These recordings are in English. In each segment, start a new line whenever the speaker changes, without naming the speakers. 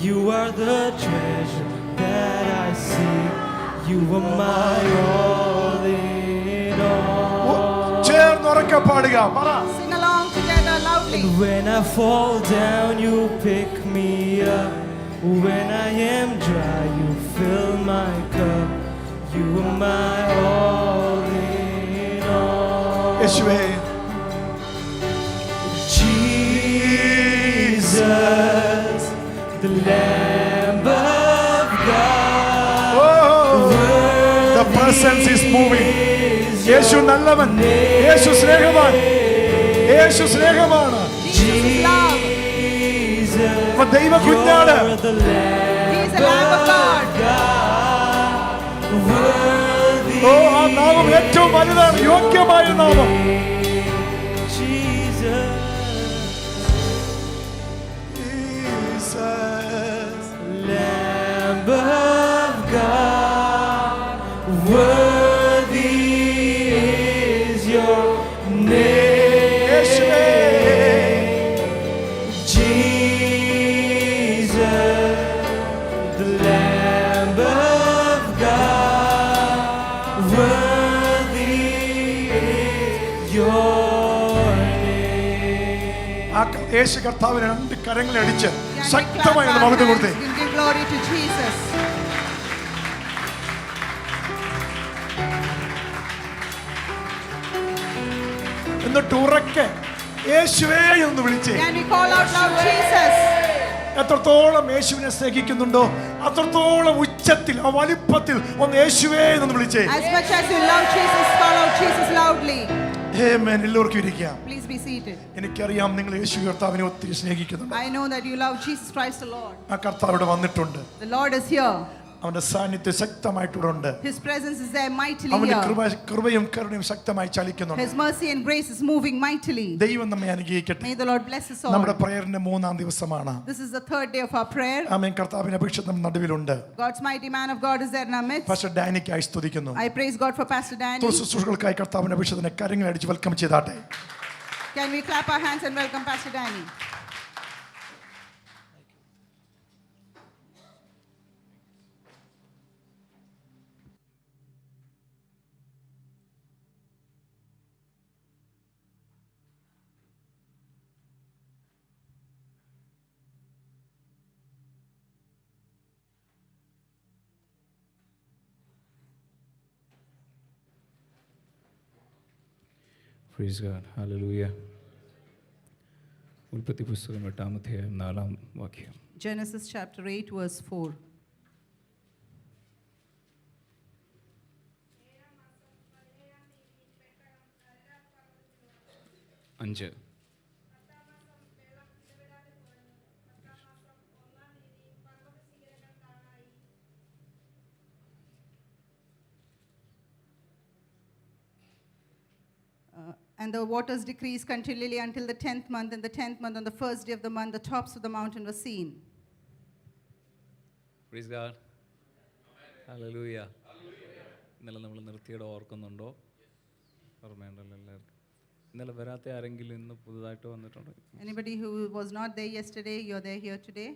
You are the treasure that I seek. You are my all in all.
ചേർന്നുറക്കെ പാടുക പറ
Sing along together loudly.
When I fall down, you pick me up. When I am dry, you fill my cup. You are my all in all.
യേശുവേ
Jesus, the Lamb of God.
Oh The presence is
Is
moving.
your
യേശു നല്ലവൻ യേശു സ്നേഹവാൻ യേശു സ്നേഹമാണ്
Jesus is love.
Jesus,
അപ്പൊ ദൈവ കുഞ്ഞാട്
you're the Lamb
He is the Lamb of God.
of God. Worthy
ഓ ആ നാമം ഏറ്റവും വലുതാണ് യോഗ്യമായ നാമം
Jesus, Lamb of God, worthy is your
യേശുവേ
name. Jesus, the Lamb of God, worthy is your name.
ആ ക- യേശു കർത്താവിനെ രണ്ട് കരങ്ങളെ അടിച്ച്
Can we clap
ശക്തമായി
our
ഒന്ന് മകത്ത്
hands?
കൊടുത്തേ
We'll give glory to Jesus.
എന്നിട്ട് ഉറക്കെ യേശുവേ എന്ന് വിളിച്ചേ
Can we call out loud Jesus?
എത്രത്തോളം യേശുവിനെ സ്നേഹിക്കുന്നുണ്ടോ അത്രത്തോളം ഉച്ചത്തിൽ ആ വലിപ്പത്തിൽ ഒന്ന് യേശുവേ എന്ന് വിളിച്ചേ
As much as you love Jesus, call out Jesus loudly.
Amen. എല്ലാവർക്കും ഇരിക്കാം
Please be seated.
എനിക്കറിയാം നിങ്ങൾ യേശു കർത്താവിനെ ഒത്തിരി സ്നേഹിക്കുന്നുണ്ട്
I know that you love Jesus Christ the Lord.
ആ കർത്താവ് ഇവിടെ വന്നിട്ടുണ്ട്
The Lord is here.
അവന്റെ സാന്നിധ്യം ശക്തമായിട്ട് ഇവിടെ ഉണ്ട്
His presence is there mightily
അവന്റെ കൃപ
here.
കൃപയും കരുണയും ശക്തമായി ചലിക്കുന്നുണ്ട്
His mercy and grace is moving mightily.
ദൈവം നമ്മെ അനുഗ്രഹിക്കട്ടെ
May the Lord bless us
നമ്മുടെ
all.
പ്രയറിന്റെ മൂന്നാം ദിവസമാണ്
This is the third day of our prayer.
ആമേൻ കർത്താവിന്റെ അപേക്ഷ നമ്മുടെ നടുവിലുണ്ട്
God's mighty man of God is there in our midst.
പക്ഷെ ഡാനിക്കായി സ്തുതിക്കുന്നു
I praise God for Pastor Danny.
തുടർ ശുശ്രൂഷകൾക്കായി കർത്താവിന്റെ അപേക്ഷത്തിനെ കരങ്ങൾ അടിച്ച് വെൽക്കം ചെയ്താട്ടെ
Can we clap our hands and welcome Pastor Danny?
Praise God hallelujah ഉൽപ്പത്തി പുസ്തകം എട്ടാം അധ്യായം നാലാം വാക്യം
Genesis chapter 8, verse 4.
അഞ്ച്
Uh, and the waters decreased continually until the 10th month. And the 10th month, on the first day of the month, the tops of the mountain were seen.
Praise God hallelujah ഇന്നലെ നമ്മൾ നിർത്തിയിടം ഓർക്കുന്നുണ്ടോ ഓർമ്മയുണ്ടല്ലോ എല്ലാവർക്കും ഇന്നലെ വരാത്ത ആരെങ്കിലും ഇന്ന് പുതുതായിട്ട് വന്നിട്ടുണ്ടോ
Anybody who was not there yesterday, you're there here today.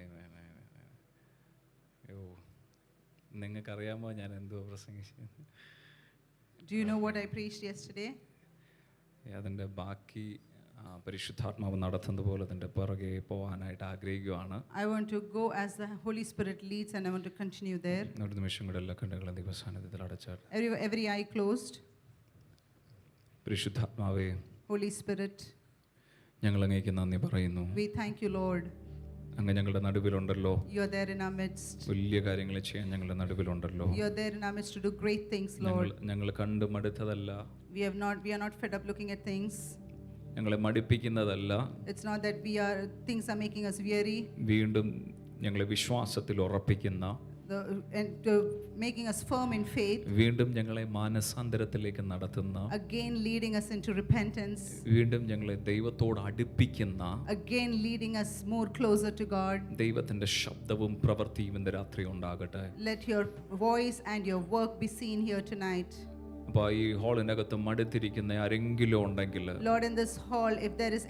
Amen, amen, amen. അയ്യോ നിങ്ങൾക്കറിയാമോ ഞാൻ എന്തോ പ്രസംഗിച്ചത്
Do you know what I preached yesterday?
അതിൻ്റെ ബാക്കി ആ, പരിശുദ്ധാത്മാവ് നടത്തുന്നത് പോലെ അതിൻ്റെ പിറകെ പോകാനായിട്ട് ആഗ്രഹിക്കുവാണ്
I want to go as the Holy Spirit leads, and I want to continue there.
ഒരു നിമിഷം കൂടെ എല്ലാ കണ്ണുകളും ദൈവസാന്നിധ്യത്തിൽ അടച്ചാട്ടെ
Every, every eye closed.
പരിശുദ്ധാത്മാവേ
Holy Spirit,
ഞങ്ങൾ അങ്ങേക്ക് നന്ദി പറയുന്നു
we thank you, Lord.
അങ്ങ് ഞങ്ങളുടെ നടുവിലുണ്ടല്ലോ
You're there in our midst.
വലിയ കാര്യങ്ങൾ ചെയ്യാൻ ഞങ്ങളുടെ നടുവിലുണ്ടല്ലോ
You're there in our midst to do great things,
ഞങ്ങൾ
Lord.
ഞങ്ങൾ കണ്ട് മടുത്തതല്ല
We have not we are not fed up looking at things.
ഞങ്ങളെ മടുപ്പിക്കുന്നതല്ല
It's not that we are things are making us weary,
വീണ്ടും ഞങ്ങളെ വിശ്വാസത്തിൽ ഉറപ്പിക്കുന്ന
the, and uh, making us firm in faith.
വീണ്ടും ഞങ്ങളെ മാനസാന്തരത്തിലേക്ക് നടത്തുന്ന
Again, leading us into repentance.
വീണ്ടും ഞങ്ങളെ ദൈവത്തോട് അടുപ്പിക്കുന്ന
Again, leading us more closer to God.
ദൈവത്തിൻ്റെ ശബ്ദവും പ്രവൃത്തിയും ഇന്ന് രാത്രി ഉണ്ടാകട്ടെ
Let your voice and your work be seen here tonight.
അപ്പോൾ ഈ ഹാളിനകത്ത് മടുത്തിരിക്കുന്ന ആരെങ്കിലും ഉണ്ടെങ്കിൽ
Lord, in this hall, if there is